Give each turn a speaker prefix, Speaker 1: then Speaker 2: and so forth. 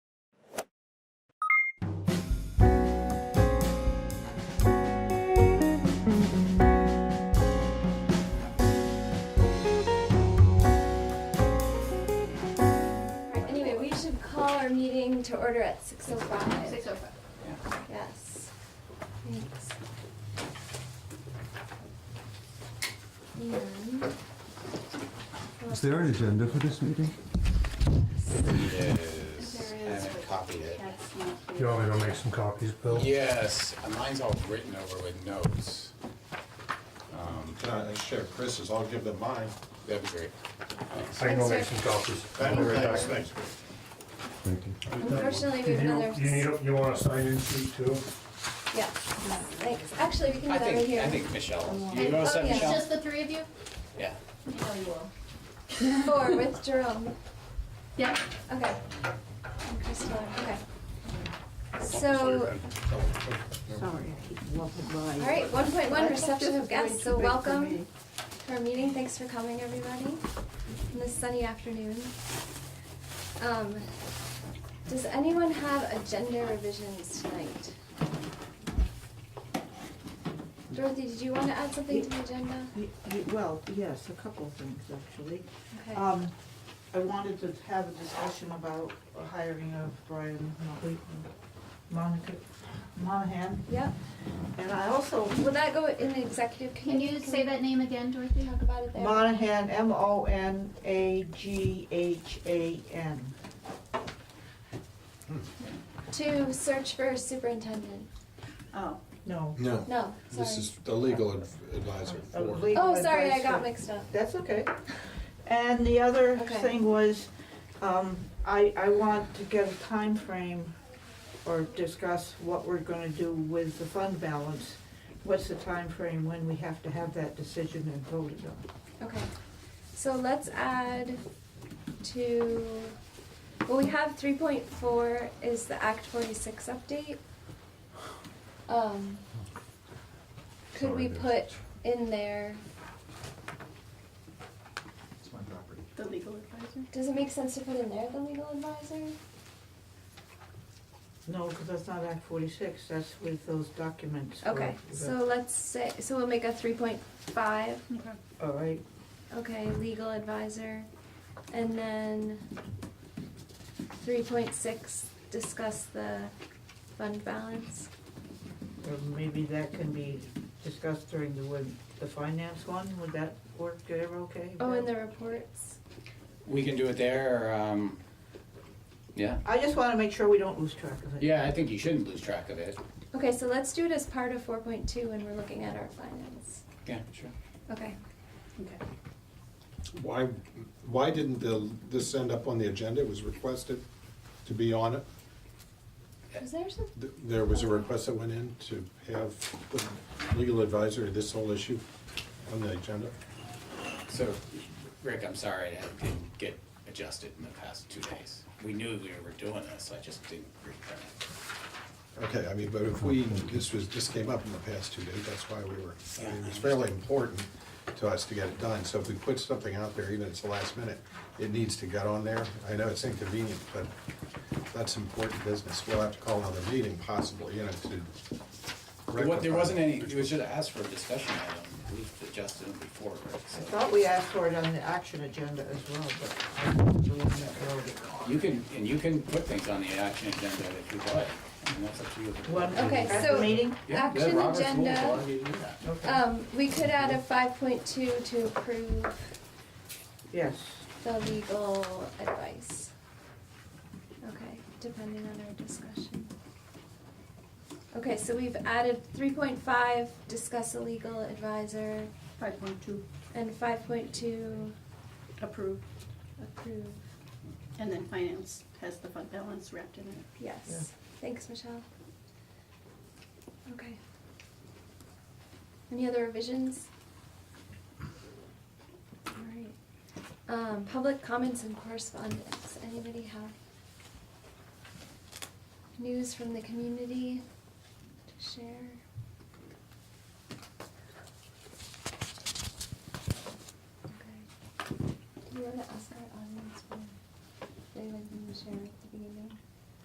Speaker 1: meeting to order at six oh five.
Speaker 2: Six oh five.
Speaker 1: Yes. Thanks. And-
Speaker 3: Is there an agenda for this meeting?
Speaker 4: Yes,
Speaker 2: There
Speaker 4: I
Speaker 2: is,
Speaker 4: haven't
Speaker 2: but
Speaker 4: copied it.
Speaker 2: That's not here.
Speaker 5: You want me to make some copies, Bill?
Speaker 4: Yes, and mine's all written over with notes. Um,
Speaker 6: Can I share Chris's? I'll give them mine.
Speaker 4: That'd be great.
Speaker 5: I can go make some copies.
Speaker 6: Thanks.
Speaker 3: Thank you.
Speaker 1: Unfortunately, we
Speaker 5: Did
Speaker 1: have another.
Speaker 5: You, you need, you want a sign-in sheet too?
Speaker 1: Yeah, thanks. Actually, we can do
Speaker 4: I
Speaker 1: that in
Speaker 4: think,
Speaker 1: here.
Speaker 4: I think Michelle, you
Speaker 2: And-
Speaker 4: know
Speaker 2: oh,
Speaker 4: something,
Speaker 2: yeah, it's
Speaker 4: Michelle?
Speaker 2: just the three of you?
Speaker 4: Yeah.
Speaker 2: You know you will.
Speaker 1: Four with Jerome.
Speaker 2: Yeah.
Speaker 1: Okay. And Crystal, okay. So,
Speaker 7: Sorry, I keep walking by.
Speaker 1: all right, one point one, reception of guests, so
Speaker 7: Too big for
Speaker 1: welcome
Speaker 7: me.
Speaker 1: to our meeting. Thanks for coming, everybody, on this sunny afternoon. Um, Does anyone have agenda revisions tonight? Dorothy, did you want to add something to the agenda?
Speaker 7: Y- y- Well, yes, a couple of things, actually.
Speaker 1: Okay.
Speaker 7: Um, I wanted to have a discussion about the hiring of Brian Motley and Monica Monahan,
Speaker 1: Yeah,
Speaker 7: and I also,
Speaker 1: will that go in the executive?
Speaker 2: Can you
Speaker 1: we
Speaker 2: say that name again, Dorothy?
Speaker 1: Talk about it there.
Speaker 7: Monahan, M-O-N-A-G-H-A-N.
Speaker 1: To search for a superintendent.
Speaker 2: Oh.
Speaker 7: No.
Speaker 6: No,
Speaker 1: No,
Speaker 6: this
Speaker 1: sorry.
Speaker 6: is the legal adv- advisor
Speaker 7: a
Speaker 6: for.
Speaker 7: legal
Speaker 1: Oh, sorry, I
Speaker 7: advice
Speaker 1: got
Speaker 7: for-
Speaker 1: mixed up.
Speaker 7: That's okay. And the other
Speaker 1: Okay.
Speaker 7: thing was, um, I, I want to get a time frame or discuss what we're gonna do with the fund balance. What's the time frame when we have to have that decision and voted on?
Speaker 1: Okay. So let's add to, well, we have three point four is the Act forty-six update. Um, could we put in there,
Speaker 6: It's my property.
Speaker 2: The legal advisor?
Speaker 1: does it make sense to put in there the legal advisor?
Speaker 7: No, because that's not Act forty-six, that's with those documents. for
Speaker 1: Okay,
Speaker 7: the-
Speaker 1: so let's say, so we'll make a three point five,
Speaker 2: Okay.
Speaker 7: All right,
Speaker 1: okay, legal advisor. And then three point six, discuss the fund balance.
Speaker 7: or maybe that can be discussed during the, win- the finance one, would that work, Deborah, okay?
Speaker 1: Oh, and the reports.
Speaker 4: We can do it there, or, um, yeah.
Speaker 7: I just wanna make sure we don't lose track of it.
Speaker 4: Yeah, I think you shouldn't lose track of it.
Speaker 1: Okay, so let's do it as part of four point two when we're looking at our finance.
Speaker 4: Yeah, sure.
Speaker 1: Okay.
Speaker 2: Okay.
Speaker 6: Why, why didn't the, this end up on the agenda? It was requested to be on it.
Speaker 1: Was there some,
Speaker 6: Th- There was a request that went in to have the legal advisor, this whole issue on the agenda.
Speaker 4: So, Rick, I'm sorry, that didn't get adjusted in the past two days. We knew we were doing this, I just didn't reprint it.
Speaker 6: Okay, I mean, but if we, this was, this came up in the past two days, that's why we were, I mean, it was fairly important to us to get it done. So if we put something out there, even if it's the last minute, it needs to get on there. I know it's inconvenient, but that's important business. We'll have to call another meeting possibly, you know, to rectify.
Speaker 4: What, there wasn't
Speaker 6: it.
Speaker 4: any, it was just asked for a discussion item, we've adjusted them before, Rick,
Speaker 7: I
Speaker 4: so.
Speaker 7: thought we asked for it on the action agenda as well, but I think we're doing that early.
Speaker 4: You can, and you can put things on the action agenda if you'd like, I mean, that's up to you.
Speaker 7: One-
Speaker 1: Okay,
Speaker 7: At
Speaker 1: so-
Speaker 7: the meeting?
Speaker 4: Yeah,
Speaker 1: Action
Speaker 4: yeah, Robert's rules
Speaker 1: agenda.
Speaker 4: allow you to do that.
Speaker 7: Okay,
Speaker 1: um, we could add a five point two to approve
Speaker 7: yes.
Speaker 1: the legal advice. Okay, depending on our discussion. Okay, so we've added three point five, discuss a legal advisor,
Speaker 2: Five point two,
Speaker 1: and five point two,
Speaker 2: approve.
Speaker 1: approve.
Speaker 2: And then finance has the fund balance wrapped in it.
Speaker 1: Yes. Thanks, Michelle. Okay. Any other revisions? All right. Um, public comments and correspondence. Anybody have news from the community to share?